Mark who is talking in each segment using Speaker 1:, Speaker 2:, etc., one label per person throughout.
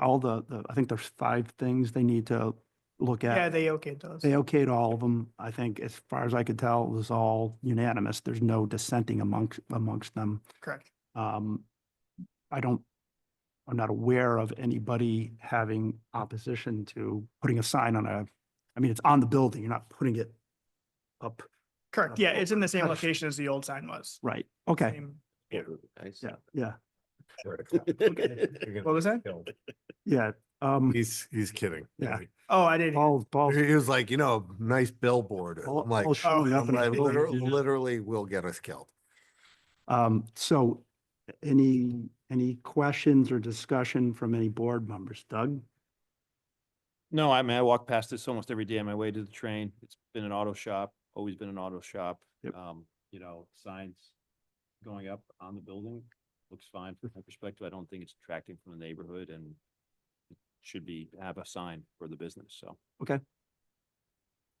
Speaker 1: all the, the, I think there's five things they need to look
Speaker 2: Yeah,
Speaker 1: at.
Speaker 2: they okayed those.
Speaker 1: They okayed all of them. I think as far as I could tell, it was all unanimous. There's no dissenting amongst, amongst them.
Speaker 2: Correct.
Speaker 1: Um, I don't, I'm not aware of anybody having opposition to putting a sign on a, I mean, it's on the building. You're not putting it up.
Speaker 2: Correct. Yeah, it's in the same
Speaker 1: Nice.
Speaker 2: location as the old sign was.
Speaker 1: Right. Oh. Okay.
Speaker 2: Same-
Speaker 3: Yeah.
Speaker 1: Yeah, yeah,
Speaker 2: What was that?
Speaker 1: yeah. Um,
Speaker 4: He's, he's kidding.
Speaker 1: Yeah.
Speaker 2: Oh, I didn't.
Speaker 1: Paul, Paul,
Speaker 4: He was like, you know, nice billboard.
Speaker 1: Paul-
Speaker 4: I'm like,
Speaker 1: Paul showing up
Speaker 4: I'm
Speaker 1: in a
Speaker 4: like, liter-
Speaker 1: building.
Speaker 4: literally will get us killed.
Speaker 1: Um, so any, any questions or discussion from any board members? Doug?
Speaker 5: No, I mean, I walk past this almost every day on my way to the train. It's been an auto shop, always been an auto shop.
Speaker 1: Yep.
Speaker 5: Um, you know, signs going up on the building looks fine from my perspective. I don't think it's attracting from the neighborhood and it should be, have a sign for the business, so.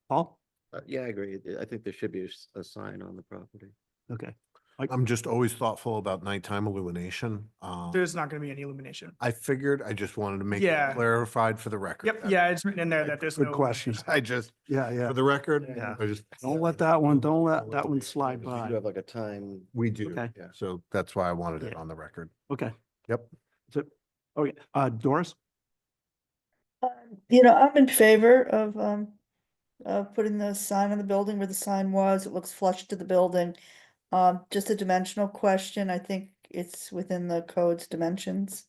Speaker 1: Paul?
Speaker 3: Uh, Yeah, I agree. I think there should be a s- a sign on the property.
Speaker 1: Okay,
Speaker 4: I'm just always thoughtful about nighttime illumination. Um,
Speaker 2: e- There's not going to be any illumination.
Speaker 4: I figured, I just wanted to make
Speaker 2: Yeah.
Speaker 4: it clarified for the record.
Speaker 2: Yep.
Speaker 4: That's-
Speaker 2: Yeah, it's written in there that there's no.
Speaker 1: good question.
Speaker 2: illumination.
Speaker 4: I just,
Speaker 1: Yeah, yeah.
Speaker 4: for the record,
Speaker 1: Yeah.
Speaker 4: I just.
Speaker 1: Don't let that one, don't
Speaker 4: Don't
Speaker 1: let
Speaker 4: let
Speaker 1: that
Speaker 4: the
Speaker 1: one
Speaker 4: big
Speaker 1: slide
Speaker 4: things
Speaker 3: You
Speaker 1: by.
Speaker 3: do have like a time.
Speaker 4: We do.
Speaker 1: Okay.
Speaker 3: Yeah.
Speaker 4: So that's why I wanted it
Speaker 1: Yeah.
Speaker 4: on the record.
Speaker 1: Okay.
Speaker 4: Yep.
Speaker 1: So, okay, uh, Doris?
Speaker 6: Um, You know, I'm in favor of, um, of putting the sign on the building where the sign was. It looks flush to the building. Um, just a dimensional question. I think it's within the code's dimensions.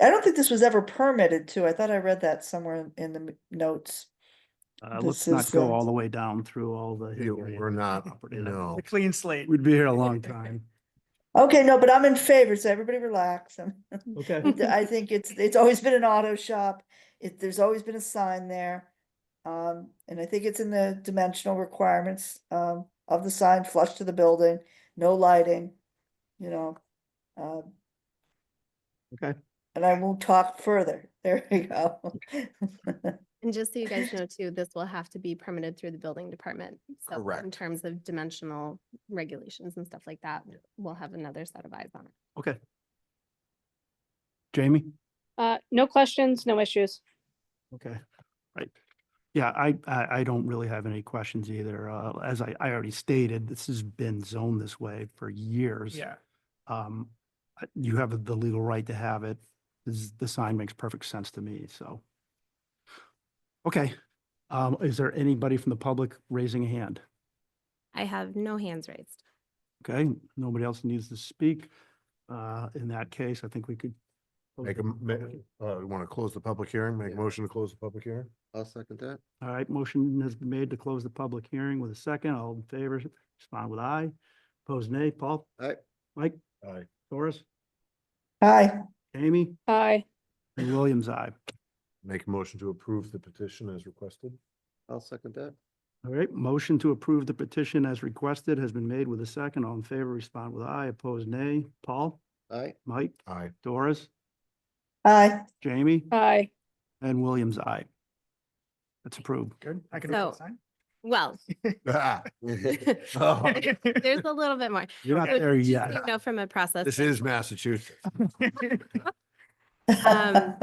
Speaker 6: I don't think this was ever permitted too. I thought I read that somewhere in the m- notes.
Speaker 1: Uh, let's
Speaker 6: This
Speaker 1: not
Speaker 6: is,
Speaker 1: go
Speaker 6: uh,
Speaker 1: all the way down through all the.
Speaker 4: You-
Speaker 1: history.
Speaker 4: We're not,
Speaker 1: property.
Speaker 4: no.
Speaker 2: A clean slate.
Speaker 1: We'd be here a long time.
Speaker 6: Okay, no, but I'm in favor, so everybody relax. I'm-
Speaker 1: Okay.
Speaker 6: I think it's, it's always been an auto shop. It, there's always been a sign there. Um, and I think it's in the dimensional requirements, um, of the sign flush to the building, no lighting, you know. um,
Speaker 1: Okay.
Speaker 6: And I won't talk further. There you go.
Speaker 7: And just so you guys know too, this will have to be permitted through the building department. So In
Speaker 4: Correct.
Speaker 7: terms of dimensional regulations and stuff like that, we'll have another set of eyes on it.
Speaker 1: Okay. Jamie?
Speaker 8: Uh, no questions, no issues.
Speaker 1: Okay, right. Yeah, I, I, I don't really have any questions either. Uh, as I, I already stated, this has been zoned this way for years.
Speaker 2: Yeah.
Speaker 1: Um, uh, you have the legal right to have it. This, the sign makes perfect sense to me, so. Okay, um, is there anybody from the public raising a hand?
Speaker 7: I have no hands raised.
Speaker 1: Okay, nobody else needs to speak. Uh, in that case, I think we could. close
Speaker 4: Make
Speaker 1: the
Speaker 4: a, ma-
Speaker 1: public-
Speaker 4: uh, want to close the public hearing? Make a
Speaker 3: Yeah.
Speaker 4: motion to close the public hearing?
Speaker 3: I'll second that.
Speaker 1: All right, motion has been made to close the public hearing with a second. All in favor, respond with aye. Opposed, nay. Paul?
Speaker 3: Aye.
Speaker 1: Mike?
Speaker 4: Aye.
Speaker 1: Doris?
Speaker 6: Hi,
Speaker 1: Amy?
Speaker 8: Aye.
Speaker 1: And Williams, aye.
Speaker 4: Make a motion to approve the petition as requested?
Speaker 3: I'll second that.
Speaker 1: All right, motion to approve the petition as requested has been made with a second. All in favor, respond with aye. Opposed, nay. Paul?
Speaker 3: Aye.
Speaker 1: Mike?
Speaker 4: Aye.
Speaker 1: Doris?
Speaker 6: hi.
Speaker 1: Jamie?
Speaker 8: Aye.
Speaker 1: And Williams, aye. That's approved.
Speaker 2: Good. I can.
Speaker 7: So- Well,
Speaker 4: Ah.
Speaker 7: there's
Speaker 4: Oh,
Speaker 7: a little bit more.
Speaker 1: You're not
Speaker 7: So
Speaker 1: there
Speaker 7: just so
Speaker 1: yet.
Speaker 7: You know, from a process.
Speaker 4: This is Massachusetts.
Speaker 7: Um,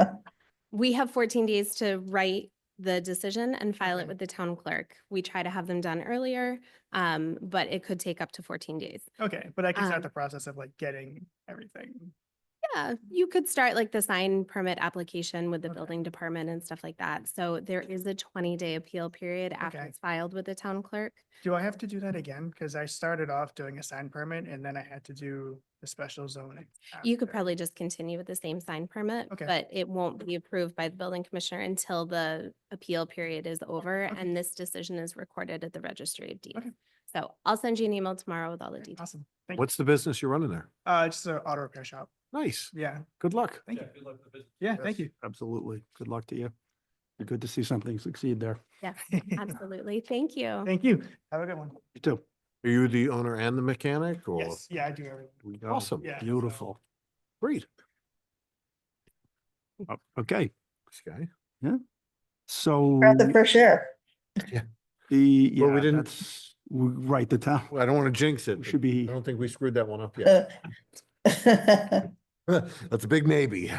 Speaker 7: We have fourteen days to write the decision and file it
Speaker 2: Okay.
Speaker 7: with the town clerk. We try to have them done earlier, um, but it could take up to fourteen days.
Speaker 2: Okay, but I can start
Speaker 7: Um,
Speaker 2: the process of like getting everything.
Speaker 7: Yeah, you could start like the sign permit application with the
Speaker 2: Okay.
Speaker 7: building department and stuff like that. So there is a twenty day appeal period after
Speaker 2: Okay.
Speaker 7: it's filed with the town clerk.
Speaker 2: Do I have to do that again? Because I started off doing a sign permit and then I had to do the special zoning.
Speaker 7: You could
Speaker 2: after.
Speaker 7: probably just continue with the same sign permit,
Speaker 2: Okay.
Speaker 7: but it won't be approved by the building commissioner until the appeal period is over
Speaker 2: okay.
Speaker 7: and this decision is recorded at the registry of deeds.
Speaker 2: Okay.
Speaker 7: So I'll send you an email tomorrow with all the
Speaker 2: Okay,
Speaker 7: details.
Speaker 2: Awesome. Thank you.
Speaker 4: What's the business you're running there?
Speaker 2: Uh, it's an auto repair shop.
Speaker 4: Nice.
Speaker 2: Yeah,
Speaker 4: Good luck.
Speaker 2: thank you. Yeah, thank you.
Speaker 1: Absolutely. Good luck to you. Good to see something succeed there.
Speaker 7: Yeah, absolutely. Thank you.
Speaker 2: Thank you. Have a good one.
Speaker 1: You too.
Speaker 4: Are you the owner and the mechanic or?
Speaker 2: Yes, yeah, I do everything.
Speaker 1: We go.
Speaker 4: Awesome.
Speaker 2: Yeah, so-
Speaker 1: Beautiful.
Speaker 4: Great.
Speaker 1: Oh, Okay,
Speaker 4: This guy.
Speaker 1: so.
Speaker 6: Breath of fresh air.
Speaker 1: The,
Speaker 4: Well, we
Speaker 1: yeah,
Speaker 4: didn't-
Speaker 1: that's, we- right, the town
Speaker 4: Well, I don't want to jinx it.
Speaker 1: we
Speaker 4: but
Speaker 1: should
Speaker 4: I
Speaker 1: be,
Speaker 4: don't think we screwed that one up yet.
Speaker 6: Uh,
Speaker 4: That's a big maybe.